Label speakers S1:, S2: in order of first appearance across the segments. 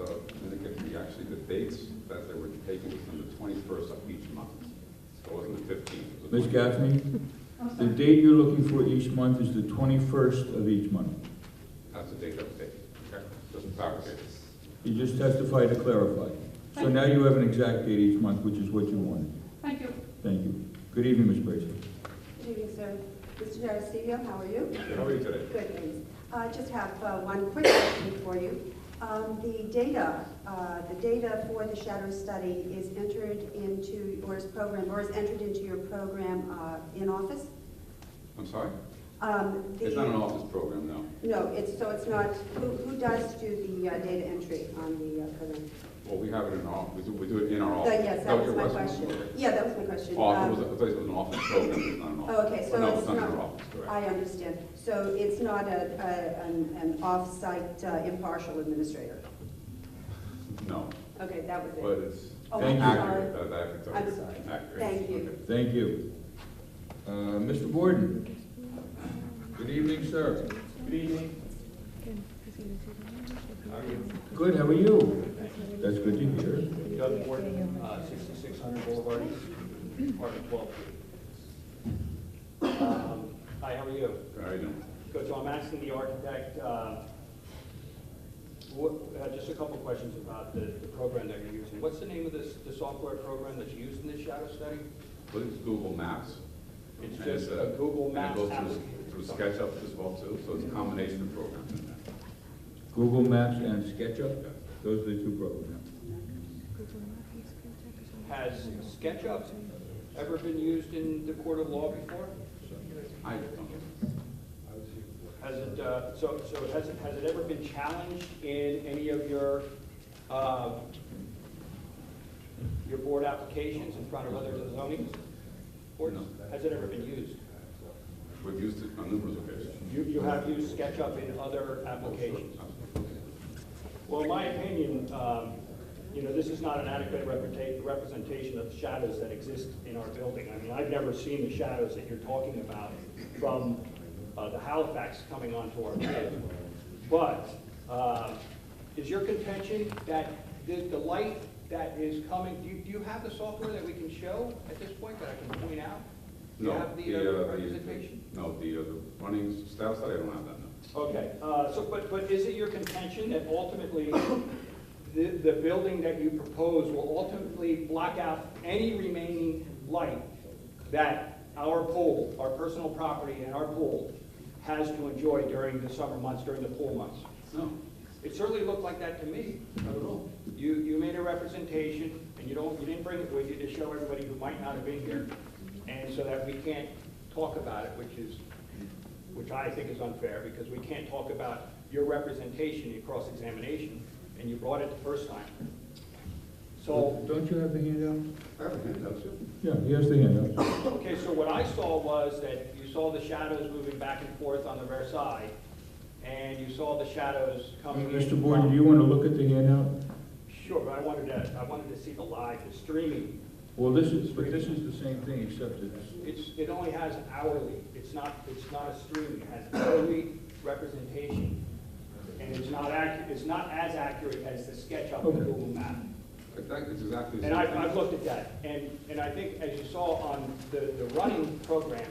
S1: uh, dates that they were taking was on the twenty-first of each month. So it wasn't the fifteenth.
S2: Ms. Gaffney,
S3: I'm
S2: the
S3: sorry.
S2: date you're looking for each month is the 21st of each month.
S1: That's the date of the date. Okay, just to clarify.
S2: You just testified to clarify. So now you have an exact date each month, which is what you wanted.
S3: Thank you.
S2: Thank you. Good evening, Ms. Bracy.
S4: Good evening, sir. Mr. D'Aristio, E how are you?
S1: How are you today?
S4: Good, thanks. I just have uh, one quick question for you. Um, The data, uh, the data for the shadow study is entered into, or is program, or is entered into your program uh, in office?
S1: I'm sorry?
S4: Um, the-
S1: It's not an office program, no.
S4: No, it's, so it's not, who who does do the uh, data entry on the uh, program?
S1: Well, we have it in our, we do, we do it in our
S4: Uh,
S1: office.
S4: Yes,
S1: Oh, That
S4: that was
S1: your
S4: my question. Yeah, that was my question.
S1: Office,
S4: Um,
S1: it was, Oh, I thought it was an office program, it's not an office.
S4: Oh, Okay, so
S1: No,
S4: it's
S1: not in our
S4: not,
S1: office, correct.
S4: I understand. So it's not a, a- an, an off-site uh, impartial administrator?
S1: No,
S4: Okay, that was it.
S1: but it's
S4: Oh,
S2: Thank
S4: I'm
S2: you.
S1: accurate,
S4: sorry.
S1: that, that I can tell you.
S4: I'm sorry.
S1: Accurate.
S4: Thank you.
S1: Okay.
S2: Thank you. Uh, Mr. Gordon? Good evening, sir.
S5: Good evening. How are you?
S2: Good, how are you? That's good to hear.
S5: Doug Gordon, uh, 6600 Boulevard, apartment 12. Um, Hi, how are you?
S1: All right, then.
S5: Good, so I'm asking the architect, uh, what, uh, just a couple questions about the the program that you're using. What's the name of this, the software program that's used in this shadow study?
S1: Well, it's Google Maps.
S5: It's
S1: And
S5: just a
S1: uh,
S5: Google
S1: and it
S5: Maps
S1: goes
S5: application.
S1: Through through SketchUp as well too, so it's a combination of programs in there.
S2: Google Maps and SketchUp, those are the two programs.
S5: Has SketchUp ever been used in the court of law before?
S1: I don't know.
S5: Has it, uh, so, so has it, has it ever been challenged in any of your, uh, your board applications in front of other zoning boards?
S1: No.
S5: Has it ever been used?
S1: We've used it on numerous occasions.
S5: You, you have used SketchUp in other applications? Well, in my opinion, um, you know, this is not an adequate representa- representation of the shadows that exist in our building. I mean, I've never seen the shadows that you're talking about from uh, the Halifax coming onto our field. But uh, is your contention that the the light that is coming, do you- do you have the software that we can show at this point that I can point out? Do you
S1: No,
S5: have the
S1: the,
S5: uh,
S1: uh, I used-
S5: presentation?
S1: No, the, uh, the running staff side, I don't have that, no.
S5: Okay, uh, so, but, but is it your contention that ultimately the, the building that you propose will ultimately block out any remaining light that our pool, our personal property and our pool has to enjoy during the summer months, during the pool months?
S1: No,
S5: It certainly looked like that to me.
S1: not at all.
S5: You, you made a representation, and you don't, you didn't bring it with you to show everybody who might not have been here, and so that we can't talk about it, which is, which I think is unfair, because we can't talk about your representation in cross-examination, and you brought it the first time. So,
S2: Don't you have the handout?
S1: I have a handout, too.
S2: Oh. Yeah, he has the handout.
S5: okay, so what I saw was that you saw the shadows moving back and forth on the rear side, and you saw the shadows coming in.
S2: Mr. Gordon,
S5: from-
S2: do Uh, you want to look at the handout?
S5: Sure, but I wanted to, I wanted to see the live, the streaming
S2: Well, this is, but this is the same thing, except it's,
S5: It's, it only has hourly, it's not, it's not a stream, it has hourly representation. And it's not accurate, it's not as accurate as the SketchUp
S2: Okay.
S5: and Google map.
S1: Exactly, it's exactly. the
S5: And
S1: same
S5: I've,
S1: thing.
S5: I've looked at that, and, and I think as you saw on the, the running program,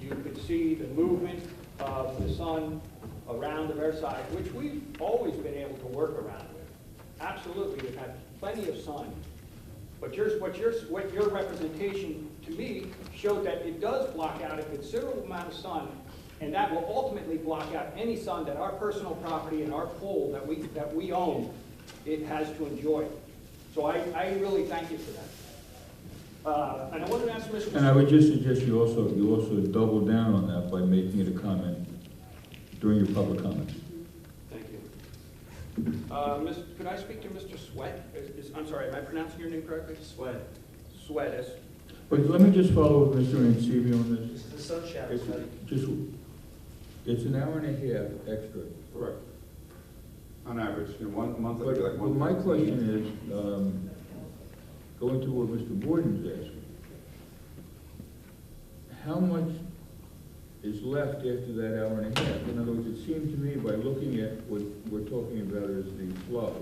S5: you could see the movement of the sun around the Versailles, which we've always been able to work around with. Absolutely, we've had plenty of sun. But yours, what yours, what your representation to me showed that it does block out a considerable amount of sun, and that will ultimately block out any sun that our personal property and our pool that we, that we own, it has to enjoy. So I, I really thank you for that. Uh, and I wanted to ask Mr.
S2: and I would just suggest you also, you also double down on that by making it a comment during your public comments.
S5: Thank you. Uh, Miss, could I speak to Mr. Sweat? Is, is- I'm sorry, am I pronouncing your name correctly? Sweat. Sweat, is,
S2: But let me just follow with Mr. Ancivio on this.
S6: This is the sun shadow
S2: It's
S6: study.
S2: just, it's an hour and a half extra.
S1: Correct. On average, in one month, it'd
S2: But
S1: be like
S2: but
S1: one.
S2: my question is, um, going to what Mr. Borden's asking, how much is left after that hour and a half? In other words, it seemed to me by looking at what we're talking about is the flow,